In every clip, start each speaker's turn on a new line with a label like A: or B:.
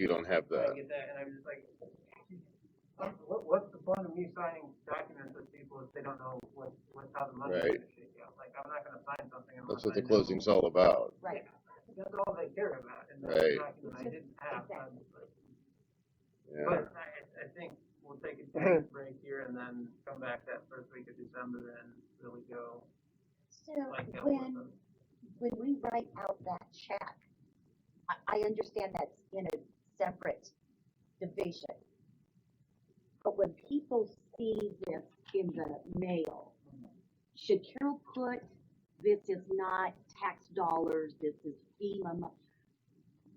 A: You don't have
B: I
A: that.
B: get that, and I'm just like, what- what, what's the point of me signing documents with people if they don't know what, what's how the money's
A: Right.
B: gonna shake out? Like, I'm not gonna sign something unless
A: That's
B: I know.
A: what the closing's all about.
C: Right,
B: That's all they care about, and that's
A: Right.
B: a document I didn't have, I'm just like,
A: Yeah.
B: But I, I think we'll take a
C: Mm-hmm.
B: quick break here and then come back that first week of December and really go
C: so
B: like that with
C: when,
B: them.
C: when we write out that check, I, I understand that's in a separate division. But when people see this in the mail, should Carol put, this is not tax dollars, this is FEMA mo-"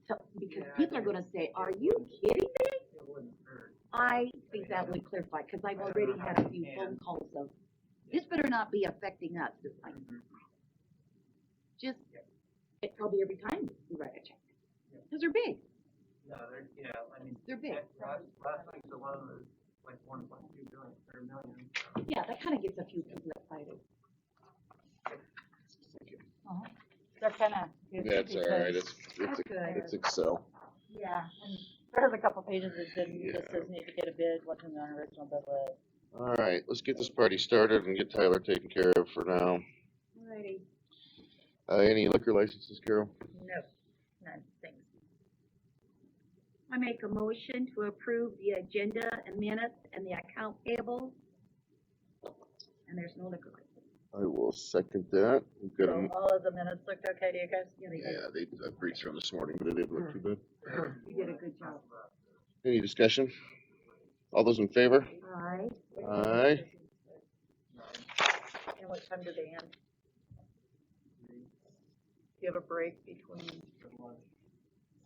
C: So,
B: Yeah,
C: because
B: I
C: people are
B: think-
C: gonna say, are you kidding me?
B: It wouldn't hurt.
C: I think that would clarify, cause I've already had a few phone calls of, this better not be affecting us, it's like,
B: Mm-hmm.
C: just, it probably every time we write a check.
B: Yeah.
C: Cause they're big,
B: No, they're, yeah, I mean,
C: they're big,
B: that- last, last week's alone was like one point two billion, or million.
C: yeah, that kinda gets a few people excited.
D: They're kind of.
A: That's all right. It's, it's,
C: That's good.
A: it's Excel.
D: Yeah, and there's a couple pages that didn't,
A: Yeah.
D: just says need to get a bid, what's in the original bid list.
A: All right, let's get this party started and get Tyler taken care of for now.
C: Alrighty.
A: Uh, any liquor licenses, Carol?
D: No, none, thanks.
C: I make a motion to approve the agenda and minutes and the account payable. And there's no liquor license.
A: I will second that. We've got a,
D: So
A: m-
D: all of the minutes looked okay to you guys?
A: yeah, they, I breached from this morning, but it didn't look too bad.
C: You did a good job.
A: Any discussion? All those in favor?
C: Alright.
A: Aye.
D: And what time do they end? Do you have a break between?
B: Pretty much,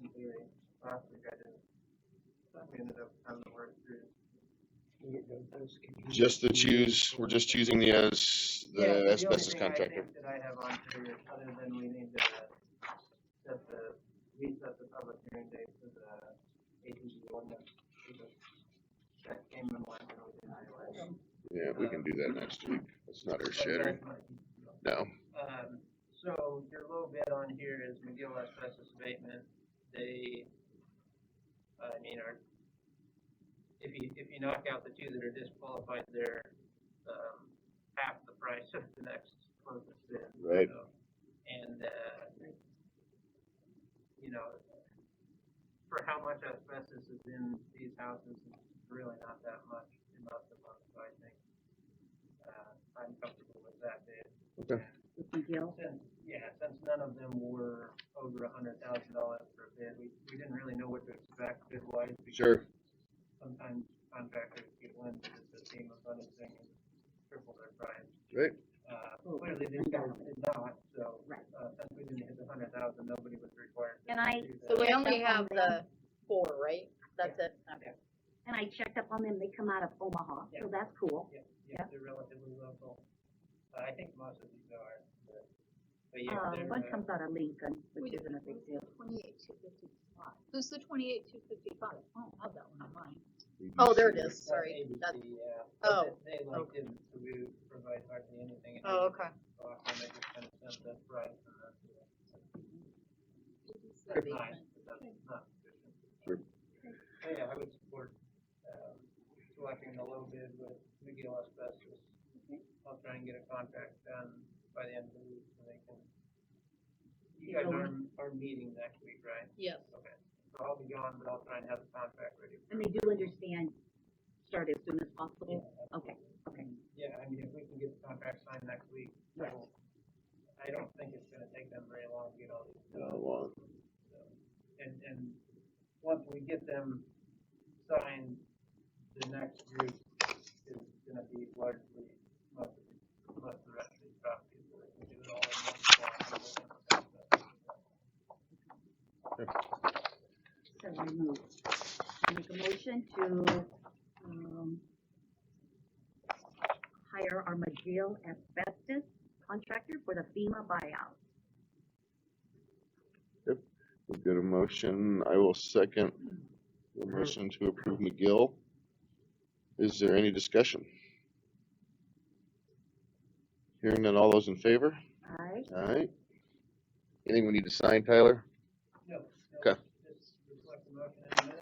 B: in theory, last week I didn't, we ended up having to work through.
A: Just the choose, we're just choosing the, as,
B: Yeah,
A: the
B: only
A: asbestos
B: thing I
A: contractor.
B: think That I have on here, other than we need to, set the, we set the public hearing date for the ATG ordinance. because That came in line when we did highlight.
A: Yeah, we can do that next week. That's not our shattering. No.
B: Um, so your low bid on here is McGill Asbestos Abatement. They, I mean, are, if you, if you knock out the two that are disqualified, they're, um, half the price of the next closest bid.
A: Right.
B: So, And, uh, you know, for how much asbestos is in these houses, it's really not that much in most of them, so I think, uh, I'm comfortable with that bid. Since, yeah, since none of them were over a hundred thousand dollars per bid, we, we didn't really know what to expect bid wise.
A: Sure.
B: Sometimes contractors get one, because the team of other thing and triple their price.
A: Right.
B: Uh, clearly these guys did not, so,
C: Right.
B: uh, since we didn't hit the hundred thousand, nobody was required to
C: And I-
B: do that.
D: So we
C: Yeah,
D: only
C: that's
D: have
C: on
D: the four, right? That's it, okay.
C: And I checked up on them, they come out of Omaha,
B: Yeah.
C: so that's cool.
B: Yeah, yeah, they're relatively local. Uh, I think most of these are, but, but yeah,
D: Um,
C: Uh,
B: they're.
C: one
B: uh,
C: comes out of Lincoln, which
E: Wait,
C: isn't a big deal.
E: Twenty-eight, two fifty-five. Who's the twenty-eight, two fifty-five? I don't have that one on mine.
D: Oh, there it
B: That's
D: is, sorry,
B: ABC,
D: that's,
B: yeah.
D: oh,
B: They they, like didn't, so we provide hardly anything. and
D: oh,
B: they
D: okay.
B: just go off and they just kind of send the price and that's it.
D: Could
B: It's
D: be.
B: nice, but that's not sufficient.
A: Sure.
B: So, yeah, I would support, um, selecting the low bid with McGill Asbestos. I'll try and get a contract done by the end of the week so they can. You guys are, are meeting next week, right?
D: Yes.
B: Okay, so I'll be gone, but I'll try and have the contract ready. for-
C: And they do understand, start as soon as possible? Okay, okay.
B: Yeah, I mean, if we can get the contract signed next week, I don't, I don't think it's gonna take them very long to get all these,
A: Uh, well,
B: so. And, and once we get them signed, the next group is gonna be largely, most of the, most of the rest of these properties, we're gonna do it all in one shot.
C: So I move, I make a motion to, um, hire our McGill asbestos contractor for the FEMA buyout.
A: We've got a motion, I will second the motion to approve McGill. Is there any discussion? Hearing none, all those in favor?
C: Alright,
A: Alright. Anything we need to sign, Tyler?
B: No, no,
A: Okay.
B: just reflect the motion in a minute.